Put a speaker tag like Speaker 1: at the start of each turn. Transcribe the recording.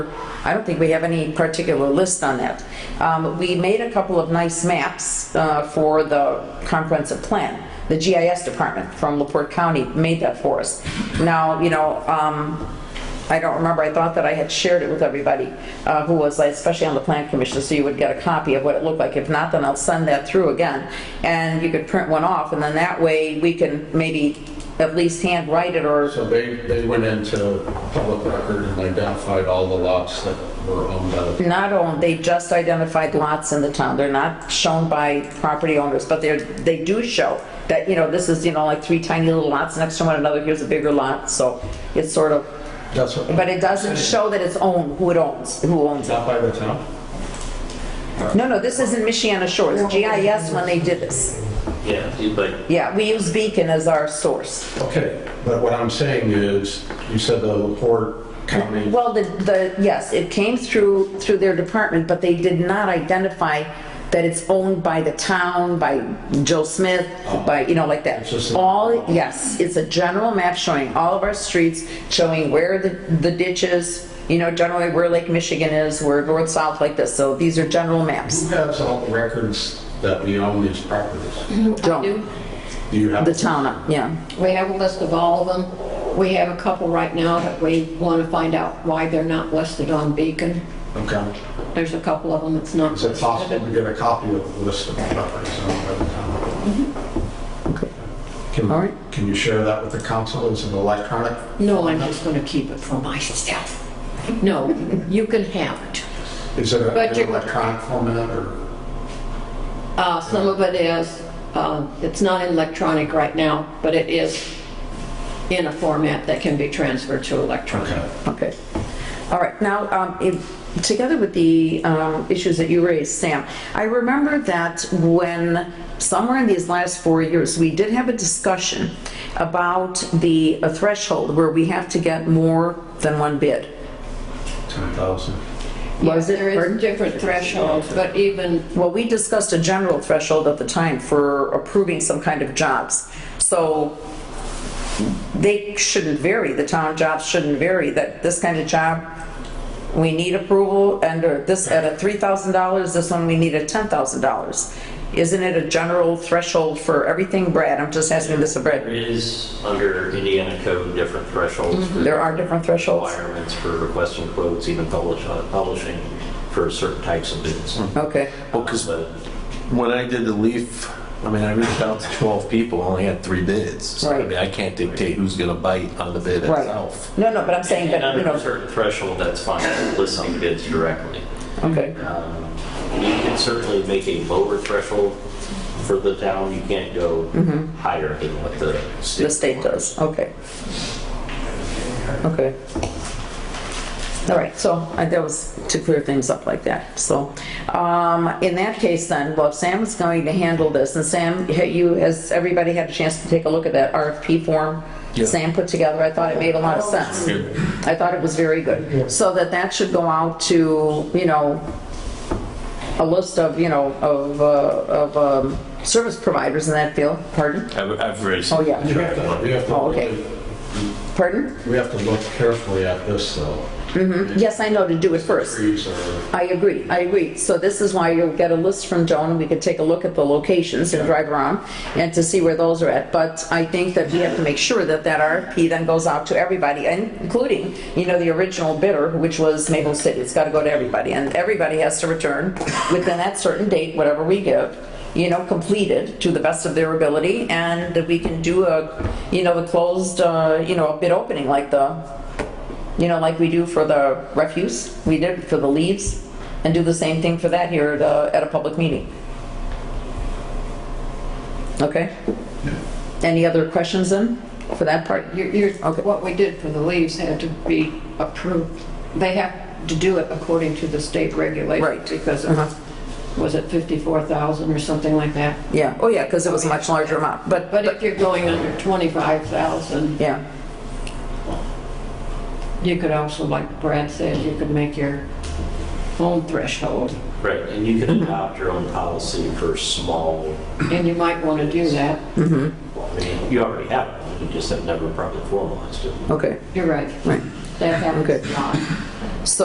Speaker 1: I don't think we have any particular list on that. Um, We made a couple of nice maps uh, for the comprehensive plan. The GIS department from LaPorte County made that for us. Now, you know, um, I don't remember, I thought that I had shared it with everybody uh, who was, like, especially on the plan commission, so you would get a copy of what it looked like. If not, then I'll send that through again, and you could print one off, and then that way, we can maybe at least handwrite it or,
Speaker 2: So they, they went into public record and identified all the lots that were owned by the,
Speaker 1: not own, they just identified lots in the town. They're not shown by property owners, but they're, they do show that, you know, this is, you know, like three tiny little lots next to one another, here's a bigger lot, so it's sort of,
Speaker 2: that's what,
Speaker 1: but it doesn't show that it's owned, who it owns, who owns it.
Speaker 2: not by the town?
Speaker 1: No, no, this isn't Michiana Shores, GIS when they did this.
Speaker 3: Yeah, you- but
Speaker 1: Yeah, we use Beacon as our source.
Speaker 2: Okay, but what I'm saying is, you said the Laporte County,
Speaker 1: Well, the, the, yes, it came through, through their department, but they did not identify that it's owned by the town, by Joe Smith, by, you know, like that.
Speaker 2: It's just a-
Speaker 1: All, yes, it's a general map showing all of our streets, showing where the, the ditch is, you know, generally where Lake Michigan is, where north, south, like this. So these are general
Speaker 2: who
Speaker 1: maps.
Speaker 2: has all the records that we own these properties?
Speaker 1: Don't,
Speaker 2: Do you have?
Speaker 1: the town, yeah.
Speaker 4: We have a list of all of them. We have a couple right now that we want to find out why they're not listed on Beacon.
Speaker 2: Okay.
Speaker 4: There's a couple of them that's not
Speaker 2: Is it possible
Speaker 4: listed.
Speaker 2: to get a copy of the list of properties owned by the town?
Speaker 1: Mm-hmm. All right.
Speaker 2: Can, can you share that with the council as an electronic?
Speaker 4: No, I'm just going to keep it for myself. No, you can have it.
Speaker 2: Is it
Speaker 4: But
Speaker 2: an
Speaker 4: you-
Speaker 2: electronic format or?
Speaker 4: Uh, Some of it is, uh, it's not electronic right now, but it is in a format that can be transferred to electronic.
Speaker 1: Okay. All right, now, um, if- together with the um, issues that you raised, Sam, I remember that when, somewhere in these last four years, we did have a discussion about the a threshold where we have to get more than one bid.
Speaker 2: 10,000.
Speaker 1: Was it?
Speaker 4: There
Speaker 1: Pardon?
Speaker 4: is different thresholds, but even
Speaker 1: Well, we discussed a general threshold at the time for approving some kind of jobs. So they shouldn't vary, the town jobs shouldn't vary, that this kind of job, we need approval under this, at a $3,000, this one we need a $10,000. Isn't it a general threshold for everything, Brad? I'm just asking this of
Speaker 3: there
Speaker 1: Brad.
Speaker 3: is under Indiana code different thresholds. for
Speaker 1: There are different Mm-hmm. thresholds?
Speaker 3: Requirements for requesting quotes, even publish- uh, publishing for certain types of bids.
Speaker 1: Okay,
Speaker 5: Well, because
Speaker 3: But
Speaker 5: when I did the leaf, I mean, I reached out to 12 people, I only had three bids. So, I
Speaker 1: Right.
Speaker 5: mean, I can't dictate who's going to bite on the bid
Speaker 1: right.
Speaker 5: itself.
Speaker 1: No, no, but I'm saying
Speaker 3: and
Speaker 1: that, you
Speaker 3: under a
Speaker 1: know,
Speaker 3: certain threshold, that's fine, listing bids directly.
Speaker 1: okay.
Speaker 3: Um, You can certainly make a lower threshold for the town, you can't go
Speaker 1: Mm-hmm.
Speaker 3: higher than what the state.
Speaker 1: The state does, okay. Okay. All right, so uh, that was to clear things up like that. So um, in that case then, well, if Sam is going to handle this, and Sam, ha- you, has everybody had a chance to take a look at that RFP form
Speaker 5: Yeah.
Speaker 1: Sam put together? I thought it made a lot of sense. I thought it was very good. So that that should go out to, you know, a list of, you know, of, uh, of um, service providers in that field, pardon?
Speaker 5: I've I've raised,
Speaker 1: Oh, yeah.
Speaker 2: You have to, you have to.
Speaker 1: Oh, okay.
Speaker 2: really-
Speaker 1: Pardon?
Speaker 2: We have to look carefully at this though.
Speaker 1: Yes, I know, to do it first.
Speaker 2: Trees are,
Speaker 1: I agree, I agree. So this is why you'll get a list from Joan, and we can take a look at the locations and drive around and to see where those are at. But I think that we have to make sure that that RFP then goes out to everybody, and including, you know, the original bidder, which was Maple City. It's got to go to everybody, and everybody has to return within that certain date, whatever we give, you know, completed to the best of their ability, and that we can do a, you know, the closed, uh, you know, a bid opening like the, you know, like we do for the refuse, we did for the leaves, and do the same thing for that here at a, at a public meeting. Okay? Any other questions then, for that part?
Speaker 4: You're- you're-
Speaker 1: Okay.
Speaker 4: What we did for the leaves had to be approved. They have to do it according to the state regulations.
Speaker 1: Right.
Speaker 4: Because,
Speaker 1: Uh-huh.
Speaker 4: of- was it 54,000 or something like that?
Speaker 1: Yeah, oh yeah, because it was a much larger amount, but,
Speaker 4: But if you're going under 25,000,
Speaker 1: yeah,
Speaker 4: you could also, like Brad said, you could make your own threshold.
Speaker 3: Right, and you can adopt your own policy for small,
Speaker 4: And you might want to do that.
Speaker 3: I mean, you already have, one, you just have never probably formalized it.
Speaker 1: okay,
Speaker 4: You're right.
Speaker 1: right,
Speaker 4: That
Speaker 1: Okay.
Speaker 4: happens a lot.